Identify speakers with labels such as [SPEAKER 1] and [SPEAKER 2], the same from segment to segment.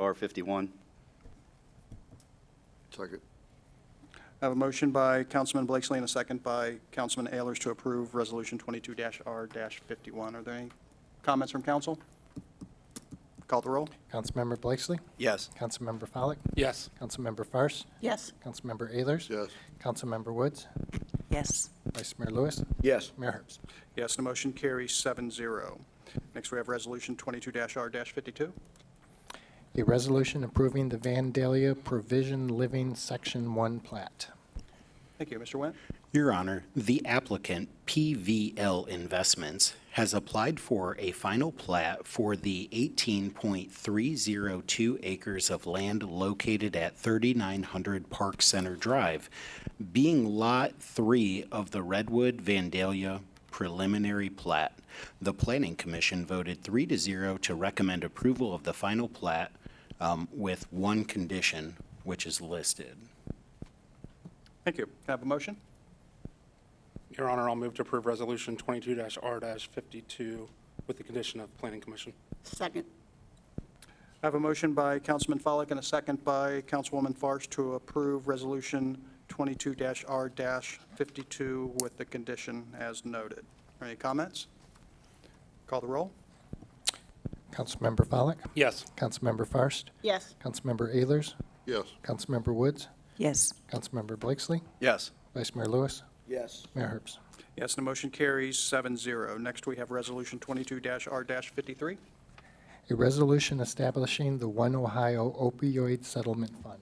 [SPEAKER 1] 22R51.
[SPEAKER 2] Second.
[SPEAKER 3] I have a motion by Councilman Blakesley and a second by Councilman Ayers to approve Resolution 22-R-51. Are there any comments from council? Call the roll.
[SPEAKER 4] Councilmember Blakesley,
[SPEAKER 1] Yes.
[SPEAKER 4] Councilmember Follak,
[SPEAKER 5] Yes.
[SPEAKER 4] Councilmember Fairst,
[SPEAKER 6] Yes.
[SPEAKER 4] Councilmember Ayers,
[SPEAKER 2] Yes.
[SPEAKER 4] Councilmember Woods,
[SPEAKER 6] Yes.
[SPEAKER 4] Vice Mayor Lewis,
[SPEAKER 2] Yes.
[SPEAKER 4] Mayor Herbst.
[SPEAKER 3] Yes, the motion carries 7-0. Next, we have Resolution 22-R-52.
[SPEAKER 4] A resolution approving the Vandalia Provision Living Section 1 plat.
[SPEAKER 3] Thank you, Mr. Wendt.
[SPEAKER 7] Your Honor, the applicant, PVL Investments, has applied for a final plat for the 18.302 acres of land located at 3900 Park Center Drive, being Lot 3 of the Redwood Vandalia preliminary plat. The Planning Commission voted 3 to 0 to recommend approval of the final plat um, with one condition, which is listed.
[SPEAKER 3] Thank you. Can I have a motion?
[SPEAKER 5] Your Honor, I'll move to approve Resolution 22-R-52 with the condition of Planning Commission.
[SPEAKER 6] Second.
[SPEAKER 3] I have a motion by Councilman Follak and a second by Councilwoman Farsh to approve Resolution 22-R-52 with the condition as noted. Are Any comments? Call the roll.
[SPEAKER 4] Councilmember Follak,
[SPEAKER 5] Yes.
[SPEAKER 4] Councilmember Fairst,
[SPEAKER 6] Yes.
[SPEAKER 4] Councilmember Ayers,
[SPEAKER 2] Yes.
[SPEAKER 4] Councilmember Woods,
[SPEAKER 6] Yes.
[SPEAKER 4] Councilmember Blakesley,
[SPEAKER 1] Yes.
[SPEAKER 4] Vice Mayor Lewis,
[SPEAKER 2] Yes.
[SPEAKER 4] Mayor Herbst.
[SPEAKER 3] Yes, the motion carries 7-0. Next, we have Resolution 22-R-53.
[SPEAKER 4] A resolution establishing the One Ohio Opioid Settlement Fund.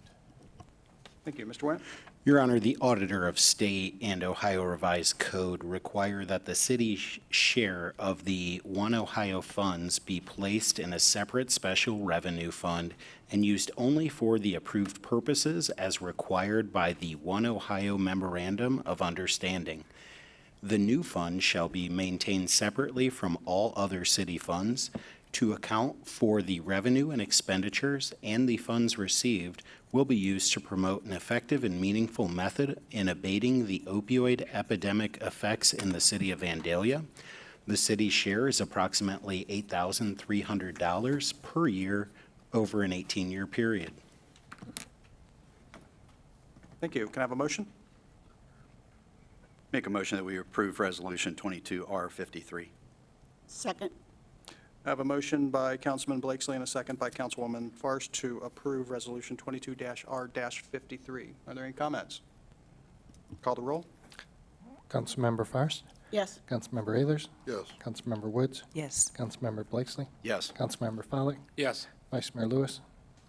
[SPEAKER 3] Thank you, Mr. Wendt.
[SPEAKER 7] Your Honor, the Auditor of State and Ohio Revised Code require that the city's sh- share of the One Ohio funds be placed in a separate special revenue fund and used only for the approved purposes as required by the One Ohio Memorandum of Understanding. The new fund shall be maintained separately from all other city funds to account for the revenue and expenditures, and the funds received will be used to promote an effective and meaningful method in abating the opioid epidemic effects in the city of Vandalia. The city's share is approximately $8,300 per year over an 18-year period.
[SPEAKER 3] Thank you. Can I have a motion?
[SPEAKER 1] Make a motion that we approve Resolution 22R53.
[SPEAKER 6] Second.
[SPEAKER 3] I have a motion by Councilman Blakesley and a second by Councilwoman Farsh to approve Resolution 22-R-53. Are there any comments? Call the roll.
[SPEAKER 4] Councilmember Fairst,
[SPEAKER 6] Yes.
[SPEAKER 4] Councilmember Ayers,
[SPEAKER 2] Yes.
[SPEAKER 4] Councilmember Woods,
[SPEAKER 6] Yes.
[SPEAKER 4] Councilmember Blakesley,
[SPEAKER 1] Yes.
[SPEAKER 4] Councilmember Follak,
[SPEAKER 5] Yes.
[SPEAKER 4] Vice Mayor Lewis,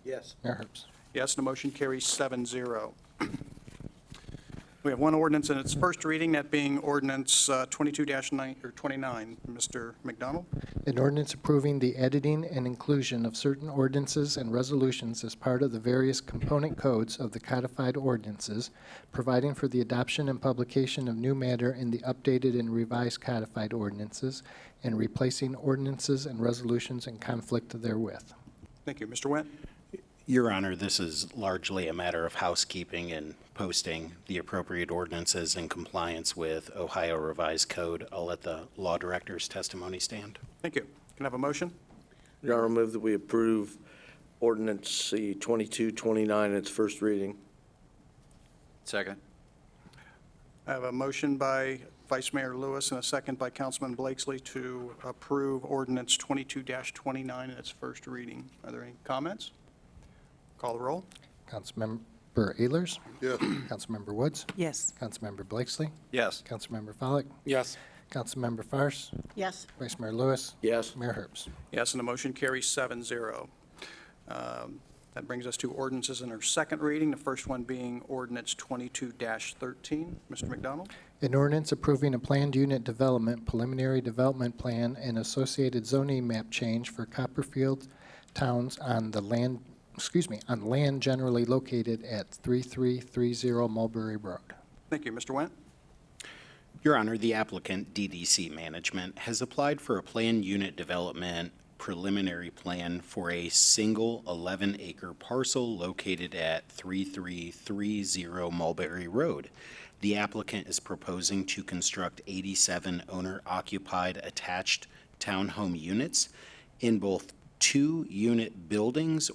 [SPEAKER 2] Yes.
[SPEAKER 4] Mayor Herbst.
[SPEAKER 3] Yes, the motion carries 7-0. We have one ordinance in its first reading, that being ordinance uh, 22-9, or 29. Mr. McDonald?
[SPEAKER 4] An ordinance approving the editing and inclusion of certain ordinances and resolutions as part of the various component codes of the codified ordinances, providing for the adoption and publication of new matter in the updated and revised codified ordinances, and replacing ordinances and resolutions in conflict therewith.
[SPEAKER 3] Thank you. Mr. Wendt?
[SPEAKER 7] Your Honor, this is largely a matter of housekeeping and posting the appropriate ordinances in compliance with Ohio Revised Code. I'll let the law director's testimony stand.
[SPEAKER 3] Thank you. Can I have a motion?
[SPEAKER 8] Your Honor, I move that we approve ordinance C 2229 in its first reading.
[SPEAKER 1] Second.
[SPEAKER 3] I have a motion by Vice Mayor Lewis and a second by Councilman Blakesley to approve ordinance 22-29 in its first reading. Are there any comments? Call the roll.
[SPEAKER 4] Councilmember Ayers,
[SPEAKER 2] Yes.
[SPEAKER 4] Councilmember Woods,
[SPEAKER 6] Yes.
[SPEAKER 4] Councilmember Blakesley,
[SPEAKER 1] Yes.
[SPEAKER 4] Councilmember Follak,
[SPEAKER 5] Yes.
[SPEAKER 4] Councilmember Fairst,
[SPEAKER 6] Yes.
[SPEAKER 4] Vice Mayor Lewis,
[SPEAKER 8] Yes.
[SPEAKER 4] Mayor Herbst.
[SPEAKER 3] Yes, and the motion carries 7-0. Um, That brings us to ordinances in our second reading, the first one being ordinance 22-13. Mr. McDonald?
[SPEAKER 4] An ordinance approving a planned unit development, preliminary development plan, and associated zoning map change for Copperfield Towns on the land, excuse me, on land generally located at 3330 Mulberry Road.
[SPEAKER 3] Thank you, Mr. Wendt.
[SPEAKER 7] Your Honor, the applicant, DDC Management, has applied for a planned unit development preliminary plan for a single 11-acre parcel located at 3330 Mulberry Road. The applicant is proposing to construct 87 owner-occupied attached townhome units in both two-unit buildings